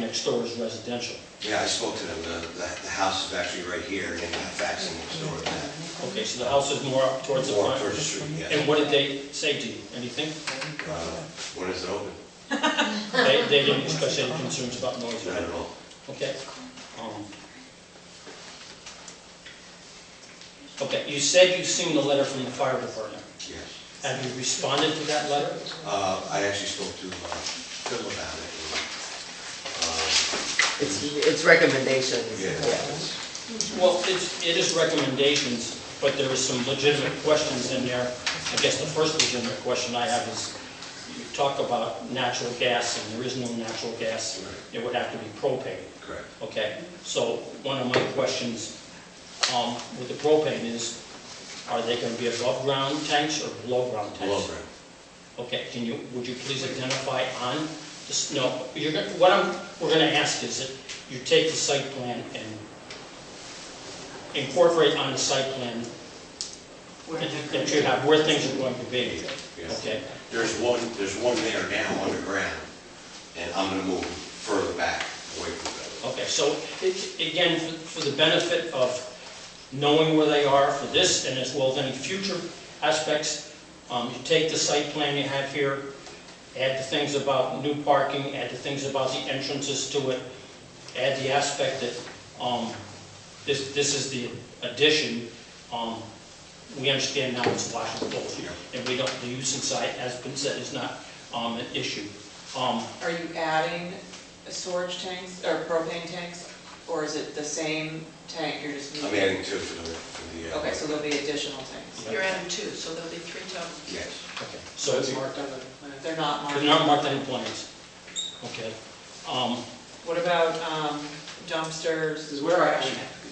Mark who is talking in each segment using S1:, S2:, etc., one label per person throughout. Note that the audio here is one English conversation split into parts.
S1: next door is residential.
S2: Yeah, I spoke to them, the, the the house is actually right here, and they got faxing next door that.
S1: Okay, so the house is more up towards the
S2: Walk
S1: front.
S2: towards the street, yeah.
S1: And what did they say to you? Anything?
S2: Uh, When is it open?
S1: They, they didn't express any concerns about noise,
S2: Not
S1: right?
S2: at all.
S1: Okay. um, Okay, you said you've seen the letter from the fire department.
S2: Yes.
S1: Have you responded to that letter?
S2: Uh, I actually spoke to uh, Phil about it. and,
S3: It's, it's recommendations.
S2: um, Yeah.
S1: Well, it's, it is recommendations, but there is some legitimate questions in there. I guess the first legitimate question I have is, you talk about natural gas, and there is no natural gas. It would have to be propane.
S2: Um, Correct.
S1: Okay, so one of my questions um, with the propane is, are they going to be above-ground tanks or below-ground tanks?
S2: Below ground.
S1: Okay, can you, would you please identify on, this- no, you're, gonna- what I'm, we're going to ask is that you take the site plan and incorporate on the site plan that you- that you have where things are going to be.
S2: Yeah.
S1: Okay,
S2: There's one, there's one there now underground, and I'm gonna move further back away from that.
S1: okay, so it- again, for for the benefit of knowing where they are for this and as well as any future aspects, um, you take the site plan you have here, add the things about new parking, add the things about the entrances to it, add the aspect that, um, this, this is the addition, um, we understand now it's Washington Boulevard, and we don't, the use inside, as been said, is not, um, an issue. Um,
S4: Are you adding storage tanks or propane tanks, or is it the same tank, you're just
S2: I'm
S4: moving?
S2: adding two for the, for the. uh,
S4: Okay, so there'll be additional tanks.
S5: You're adding two, so there'll be three total.
S2: Yes.
S1: okay, so.
S4: So it's marked on the plan. They're not
S1: They're
S4: marked.
S1: not marked any plans, okay? Um,
S4: What about um, dumpsters?
S6: This is where I,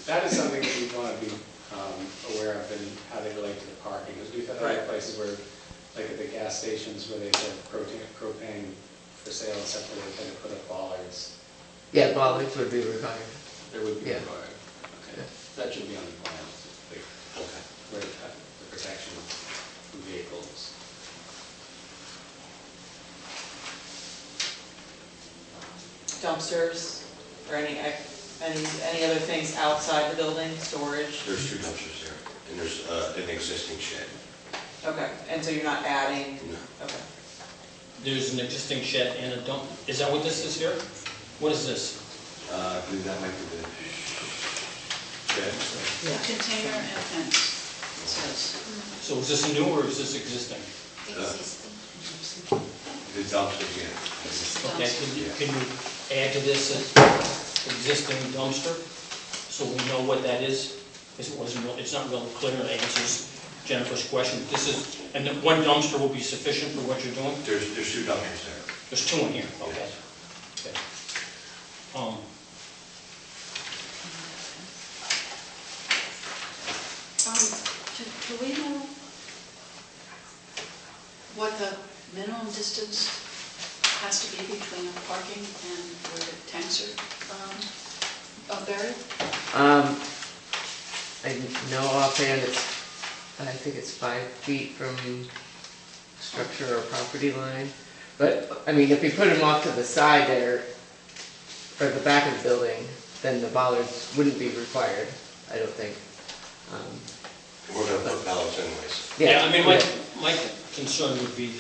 S6: that is something that we want to be um, aware of and how they relate to the parking. Because we've had other
S4: Right.
S6: places where, like at the gas stations where they have propane, propane for sale and stuff, where they tend to put up bollards.
S3: Yeah, bollards would be required.
S6: There would be
S3: Yeah.
S6: a bollard. Okay. That should be on the plan, like,
S2: Okay.
S6: where, uh, the protection from vehicles.
S4: dumpsters or any, ex- any, any other things outside the building, storage?
S2: There's two dumpsters there, and there's uh, an existing shed.
S4: Okay, and so you're not adding,
S2: No,
S4: okay.
S1: There's an existing shed and a dump, is that what this is here? What is this?
S2: Uh, I believe that might be the shed.
S5: Container and fence, it says.
S1: So is this new or is this existing?
S7: Existing.
S2: The dumpster, yeah.
S1: Okay, can you, can you add to this as existing dumpster? So we know what that is? Because it wasn't real, it's not real clear, it answers Jennifer's question. This is, and the one dumpster will be sufficient for what you're doing?
S2: There's, there's two dumpsters there.
S1: There's two in here, okay. Okay. Um,
S5: Um, do, do we know what the minimum distance has to be between the parking and where the tanks are, um, are buried?
S3: Um, I know offhand it's, I think it's five feet from structure or property line. But, I mean, if you put them off to the side there, or the back of the building, then the bollards wouldn't be required, I don't think. Um,
S2: We're gonna put ballots anyways.
S1: Yeah, I mean, my,
S3: yeah.
S1: my concern would be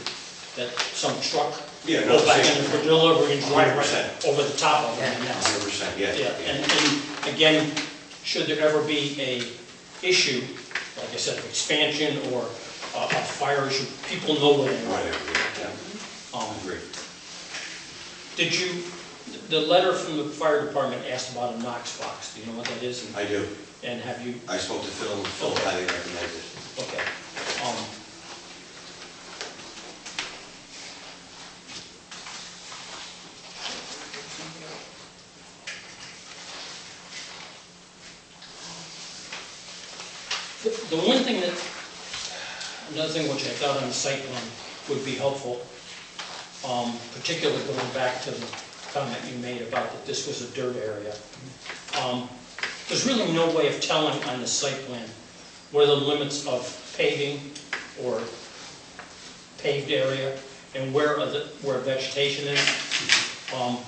S1: that some truck
S2: Yeah, no,
S1: goes back
S2: same.
S1: in for delivery and drive right
S2: 100%.
S1: over the top of them.
S3: Yeah.
S2: Hundred percent, yeah.
S1: Yeah, and, and again, should there ever be a issue, like I said, of expansion or a a fire issue, people know where they
S2: Right, yeah,
S1: are. Um,
S2: yeah, agree.
S1: Did you, the letter from the fire department asked about a Knox box, do you know what that is? And-
S2: I do.
S1: And have you,
S2: I spoke to Phil, and Phil highly recommended it.
S1: okay. um, The the one thing that, another thing which I thought on the site plan would be helpful, um, particularly going back to the comment you made about that this was a dirt area. Um, There's really no way of telling on the site plan what are the limits of paving or paved area and where are the, where vegetation is. Um,